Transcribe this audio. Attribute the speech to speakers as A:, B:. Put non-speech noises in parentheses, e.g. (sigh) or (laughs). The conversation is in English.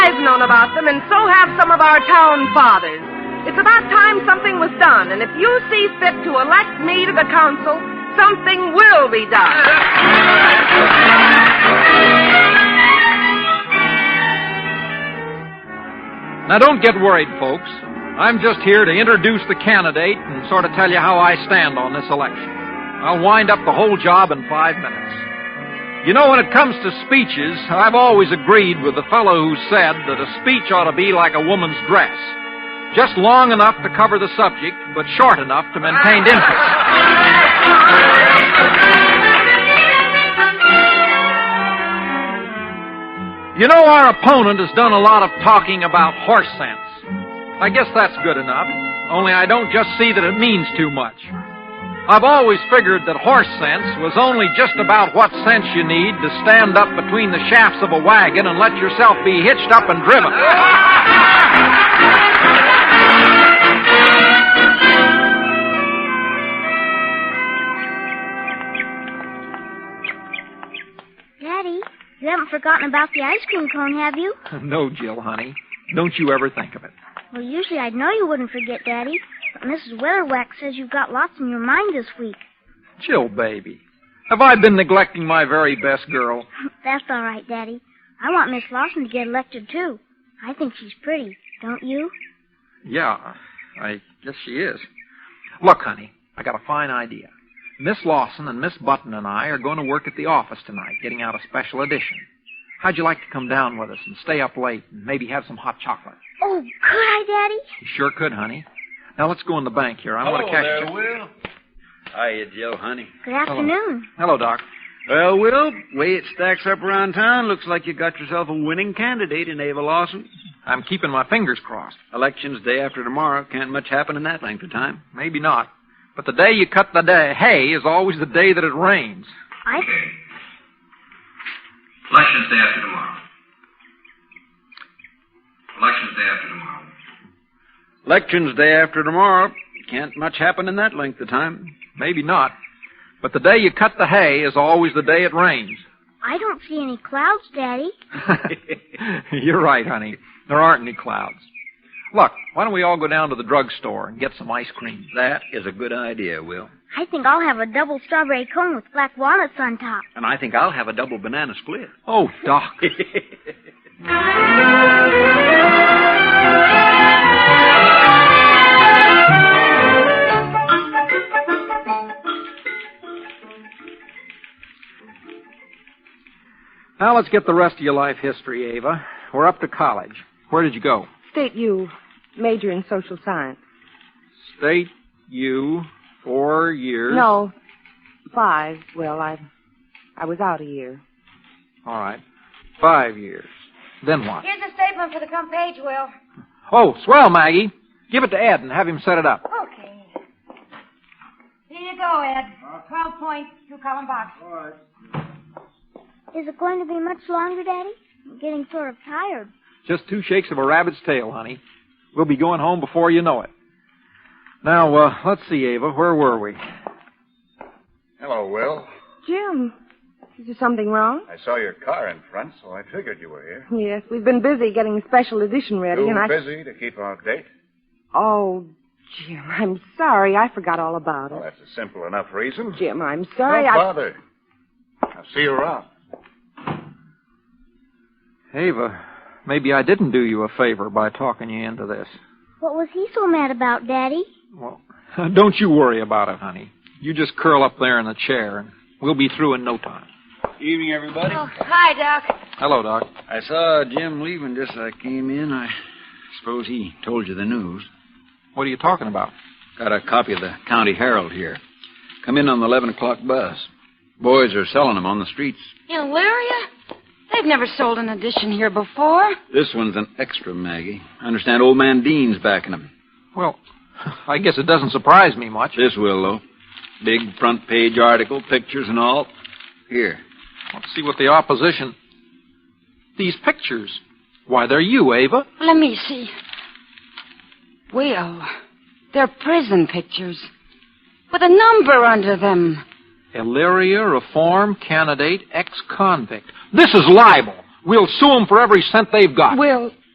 A: down about them, and so have some of our town fathers. It's about time something was done, and if you see fit to elect me to the council, something will be done.
B: Now, don't get worried, folks. I'm just here to introduce the candidate and sort of tell you how I stand on this election. I'll wind up the whole job in five minutes. You know, when it comes to speeches, I've always agreed with the fellow who said that a speech ought to be like a woman's dress. Just long enough to cover the subject, but short enough to maintain interest. You know, our opponent has done a lot of talking about horse sense. I guess that's good enough, only I don't just see that it means too much. I've always figured that horse sense was only just about what sense you need to stand up between the shafts of a wagon and let yourself be hitched up and driven.
C: Daddy, you haven't forgotten about the ice cream cone, have you?
B: (laughs) no, Jill, honey. Don't you ever think of it.
C: Well, usually I'd know you wouldn't forget, Daddy. But Mrs. Weatherwax says you've got lots in your mind this week. (laughs)
B: Jill, baby. Have I been neglecting my very best girl?
C: That's all right, Daddy. I want Miss Lawson to get elected, too. I think she's pretty, don't you?
B: Yeah, I guess she is. Look, honey, I got a fine idea. Miss Lawson and Miss Button and I are going to work at the office tonight, getting out a special edition. How'd you like to come down with us and stay up late and maybe have some hot chocolate?
C: Oh, could I, Daddy?
B: You sure could, honey. Now let's go in the bank here. I want
D: Hello
B: to catch
D: Oh, there,
B: you.
D: Will. Hiya, Jill, honey.
C: Good afternoon.
B: Hello, Doc.
D: Well, Will, way it stacks up around town, looks like you got yourself a winning candidate in Ava Lawson.
B: I'm keeping my fingers crossed.
D: Election's day after tomorrow. Can't much happen in that length of time.
B: Maybe not. But the day you cut the day, hay is always the day that it rains.
C: I
E: Elections day after tomorrow. Elections day after tomorrow.
D: Election's day after tomorrow. Can't much happen in that length of time.
B: Maybe not. But the day you cut the hay is always the day it rains.
C: I don't see any clouds, Daddy.
B: (laughs) You're right, honey. There aren't any clouds. Look, why don't we all go down to the drugstore and get some ice cream?
D: That is a good idea, Will.
C: I think I'll have a double strawberry cone with black walnuts on top.
D: And I think I'll have a double banana split.
B: Oh,
D: (laughs)
B: Doc. now let's get the rest of your life history, Ava. We're up to college. Where did you go?
F: State U, major in social science.
B: State U, four years.
F: No, five. Well, I, I was out a year.
B: All right. Five years. Then what?
G: Here's a statement for the front page, Will.
B: Oh, swell, Maggie. Give it to Ed and have him set it up.
G: Okay. Here you go, Ed. Twelve points, two column box.
C: Is it going to be much longer, Daddy? I'm getting sort of tired.
B: Just two shakes of a rabbit's tail, honey. We'll be going home before you know it. Now, uh, let's see, Ava. Where were we?
H: Hello, Will.
F: Jim, is there something wrong?
H: I saw your car in front, so I figured you were here.
F: Yes, we've been busy getting the special edition ready,
H: Too
F: and I.
H: busy to keep our date?
F: Oh, Jim, I'm sorry. I forgot all about
H: Well,
F: it.
H: that's a simple enough reason.
F: Jim, I'm
H: Don't
F: sorry. I.
H: bother. I'll see you around.
B: Ava, maybe I didn't do you a favor by talking you into this.
C: What was he so mad about, Daddy?
B: Well, (laughs) don't you worry about it, honey. You just curl up there in the chair, and we'll be through in no time.
D: Evening, everybody.
G: Oh, hi, Doc.
B: Hello, Doc.
D: I saw Jim leaving just as I came in. I suppose he told you the news.
B: What are you talking about?
D: Got a copy of the County Herald here. Come in on the 11 o'clock bus. Boys are selling them on the streets.
G: Illyria? They've never sold an edition here before.
D: This one's an extra, Maggie. I understand old man Dean's backing them.
B: Well, (laughs) I guess it doesn't surprise me much.
D: This will, though. Big front page article, pictures and all. Here.
B: Let's see what the opposition. These pictures. Why, they're you, Ava.
G: Let me see. Will, they're prison pictures with a number under them.
B: Illyria reform candidate ex convict. This is libel. We'll sue 'em for every cent they've got.
G: Will,